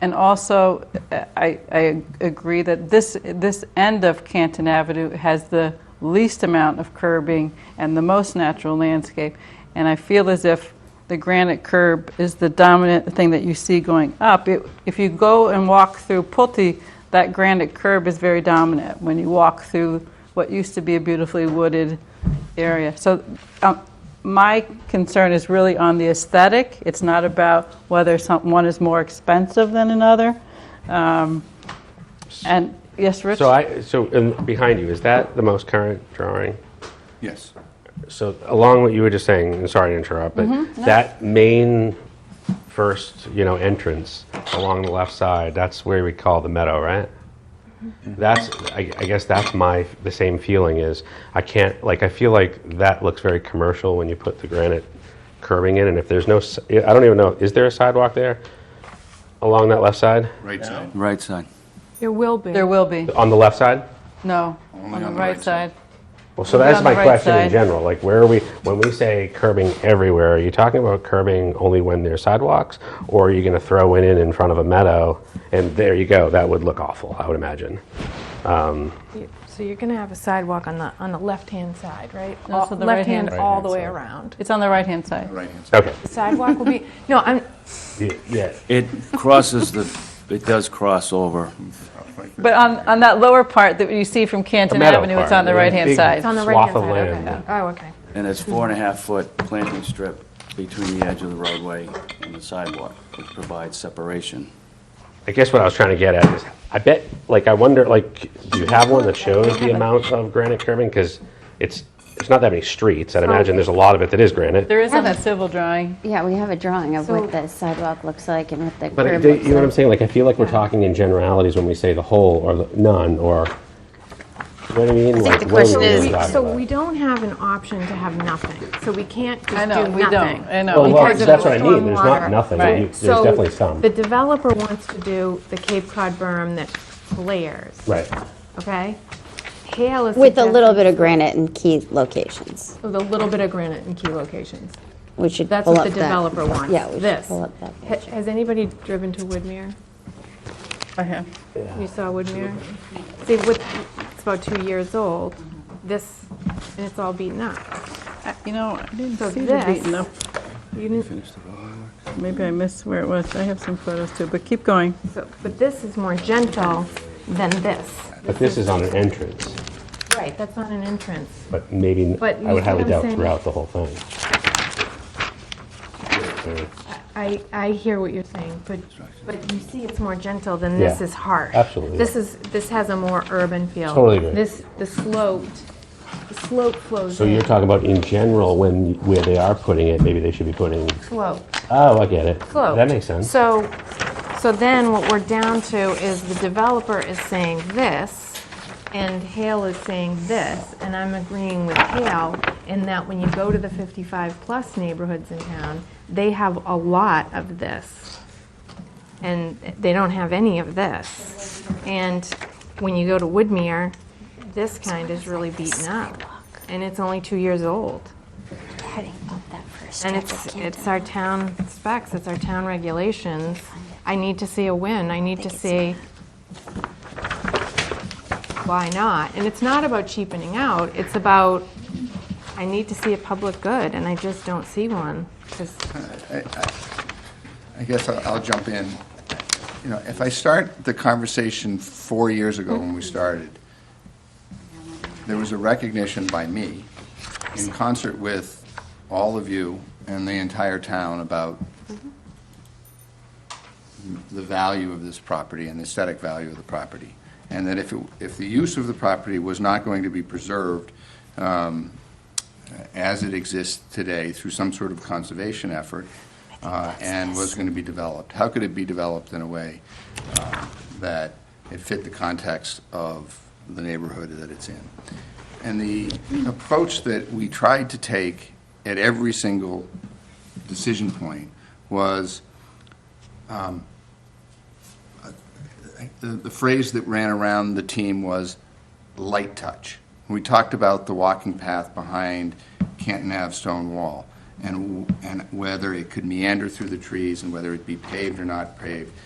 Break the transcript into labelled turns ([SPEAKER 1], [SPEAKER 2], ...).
[SPEAKER 1] And also, I, I agree that this, this end of Canton Avenue has the least amount of curbing and the most natural landscape. And I feel as if the granite curb is the dominant thing that you see going up. It- If you go and walk through Pulte, that granite curb is very dominant when you walk through what used to be a beautifully wooded area. So um, my concern is really on the aesthetic. It's not about whether some- one is more expensive than another. Um, And, yes, Rich?
[SPEAKER 2] So I, so in- behind you, is that the most current drawing?
[SPEAKER 3] Yes.
[SPEAKER 2] So along what you were just saying, and sorry to interrupt, but that main first, you know, entrance along the left side, that's where we call the meadow, right? That's, I I guess that's my, the same feeling is, I can't, like, I feel like that looks very commercial when you put the granite curving in, and if there's no, s- I don't even know, is there a sidewalk there along that left side?
[SPEAKER 3] Right side.
[SPEAKER 4] Right side.
[SPEAKER 5] There will be.
[SPEAKER 1] There will be,
[SPEAKER 2] On the left side?
[SPEAKER 1] no,
[SPEAKER 3] Only
[SPEAKER 1] on the right side.
[SPEAKER 2] Well, so
[SPEAKER 1] We'll be
[SPEAKER 2] that's
[SPEAKER 1] on the
[SPEAKER 2] my
[SPEAKER 1] right
[SPEAKER 2] question in
[SPEAKER 1] side.
[SPEAKER 2] general. Like, where are we, when we say curbing everywhere, are you talking about curbing only when there's sidewalks? Or are you going to throw it in in front of a meadow? And there you go, that would look awful, I would imagine.
[SPEAKER 5] You- So you're going to have a sidewalk on the, on the left-hand side, right?
[SPEAKER 1] No,
[SPEAKER 5] All-
[SPEAKER 1] so the right-hand-
[SPEAKER 5] Left hand all the way
[SPEAKER 2] Right-hand
[SPEAKER 5] around.
[SPEAKER 1] It's on the right-hand side.
[SPEAKER 3] Right-hand side.
[SPEAKER 2] Okay.
[SPEAKER 5] The sidewalk will be, no, I'm,
[SPEAKER 2] Y- Yeah.
[SPEAKER 4] It crosses the, it does cross over.
[SPEAKER 1] But on, on that lower part that you see from
[SPEAKER 2] The
[SPEAKER 1] Canton
[SPEAKER 2] meadow
[SPEAKER 1] Avenue, it's
[SPEAKER 2] part,
[SPEAKER 1] on the
[SPEAKER 2] yeah.
[SPEAKER 1] right-hand
[SPEAKER 2] Big-
[SPEAKER 5] it's
[SPEAKER 1] side.
[SPEAKER 5] on the
[SPEAKER 2] Swath
[SPEAKER 5] right-hand
[SPEAKER 2] of
[SPEAKER 5] side,
[SPEAKER 2] land.
[SPEAKER 5] okay. Oh, okay.
[SPEAKER 4] And it's four and a half foot planting strip between the edge of the roadway and the sidewalk, which provides separation.
[SPEAKER 2] I guess what I was trying to get at is, I bet, like, I wonder, like, do you have one that shows the amount of granite curbing? Because it's, it's not that many streets. I'd imagine there's a lot of it that is granite.
[SPEAKER 1] There is on that civil drawing.
[SPEAKER 6] Yeah, we have a drawing of
[SPEAKER 5] So-
[SPEAKER 6] what the sidewalk looks like and what the
[SPEAKER 2] But I-
[SPEAKER 6] curb
[SPEAKER 2] you
[SPEAKER 6] looks
[SPEAKER 2] know what I'm
[SPEAKER 6] like.
[SPEAKER 2] saying? Like, I feel like we're talking in generalities when we say the whole or the none or, you know what I mean?
[SPEAKER 6] think
[SPEAKER 2] Like, what are
[SPEAKER 6] the
[SPEAKER 2] we
[SPEAKER 6] question
[SPEAKER 2] really
[SPEAKER 6] is-
[SPEAKER 5] We-
[SPEAKER 2] talking
[SPEAKER 5] So
[SPEAKER 2] about?
[SPEAKER 5] we don't have an option to have nothing, so we can't just do
[SPEAKER 1] I
[SPEAKER 5] nothing.
[SPEAKER 1] know, we don't, I know.
[SPEAKER 2] Well, well,
[SPEAKER 5] because of
[SPEAKER 2] that's
[SPEAKER 5] the
[SPEAKER 2] what I mean. There's not
[SPEAKER 5] stormwater.
[SPEAKER 2] nothing.
[SPEAKER 1] Right.
[SPEAKER 2] You- There's definitely some.
[SPEAKER 5] So the developer wants to do the Cape Cod berm that flares,
[SPEAKER 2] Right.
[SPEAKER 5] okay? Hale is
[SPEAKER 6] With a little
[SPEAKER 5] suggesting-
[SPEAKER 6] bit of granite in key locations.
[SPEAKER 5] With a little bit of granite in key locations.
[SPEAKER 6] We should
[SPEAKER 5] That's
[SPEAKER 6] pull
[SPEAKER 5] what
[SPEAKER 6] up
[SPEAKER 5] the
[SPEAKER 6] that.
[SPEAKER 5] developer wants,
[SPEAKER 6] Yeah, we should
[SPEAKER 5] this.
[SPEAKER 6] pull up that.
[SPEAKER 5] Ha- Has anybody driven to Woodmere?
[SPEAKER 1] I have.
[SPEAKER 5] You saw Woodmere? See, Wood- it's about two years old, this, and it's all beaten up.
[SPEAKER 1] Uh, You know, I didn't
[SPEAKER 5] So
[SPEAKER 1] see the
[SPEAKER 5] this-
[SPEAKER 1] beaten up.
[SPEAKER 5] You didn't,
[SPEAKER 1] Maybe I missed where it was. I have some photos too, but keep going.
[SPEAKER 5] so- but this is more gentle than this.
[SPEAKER 2] But this is on an entrance,
[SPEAKER 5] Right, that's not an entrance.
[SPEAKER 2] but maybe,
[SPEAKER 5] But
[SPEAKER 2] I would
[SPEAKER 5] you see what
[SPEAKER 2] highly
[SPEAKER 5] I'm
[SPEAKER 2] doubt
[SPEAKER 5] saying?
[SPEAKER 2] throughout the whole thing.
[SPEAKER 5] I, I hear what you're saying, but, but you see it's more gentle than
[SPEAKER 2] Yeah,
[SPEAKER 5] this is harsh.
[SPEAKER 2] absolutely.
[SPEAKER 5] This is, this has a more urban feel.
[SPEAKER 2] Totally agree.
[SPEAKER 5] This, the sloped, the slope flows
[SPEAKER 2] So
[SPEAKER 5] in.
[SPEAKER 2] you're talking about in general, when, where they are putting it, maybe they should be putting,
[SPEAKER 5] Slope.
[SPEAKER 2] oh, I get it.
[SPEAKER 5] closed.
[SPEAKER 2] That makes sense.
[SPEAKER 5] So, so then what we're down to is the developer is saying this, and Hale is saying this, and I'm agreeing with Hale in that when you go to the 55-plus neighborhoods in town, they have a lot of this, and they don't have any of this. And when you go to Woodmere, this kind is really beaten up, and it's only two years old.
[SPEAKER 6] Heading up that first
[SPEAKER 5] And
[SPEAKER 6] stretch of
[SPEAKER 5] it's,
[SPEAKER 6] Camden.
[SPEAKER 5] it's our town specs, it's our town regulations. I need to see a win, I need to see why not? And it's not about cheapening out, it's about, I need to see a public good, and I just don't see one. 'cause-
[SPEAKER 3] I guess I'll I'll jump in. You know, if I start the conversation four years ago when we started, there was a recognition by me, in concert with all of you and the entire town, about the value of this property and the aesthetic value of the property. And that if, it- if the use of the property was not going to be preserved um, as it exists today through some sort of conservation effort, uh, and was going to be developed, how could it be developed in a way uh, that it fit the context of the neighborhood that it's in? And the approach that we tried to take at every single decision point was, um, the the phrase that ran around the team was light touch. We talked about the walking path behind Canton Ave stone wall and, w- and whether it could meander through the trees and whether it be paved or not paved.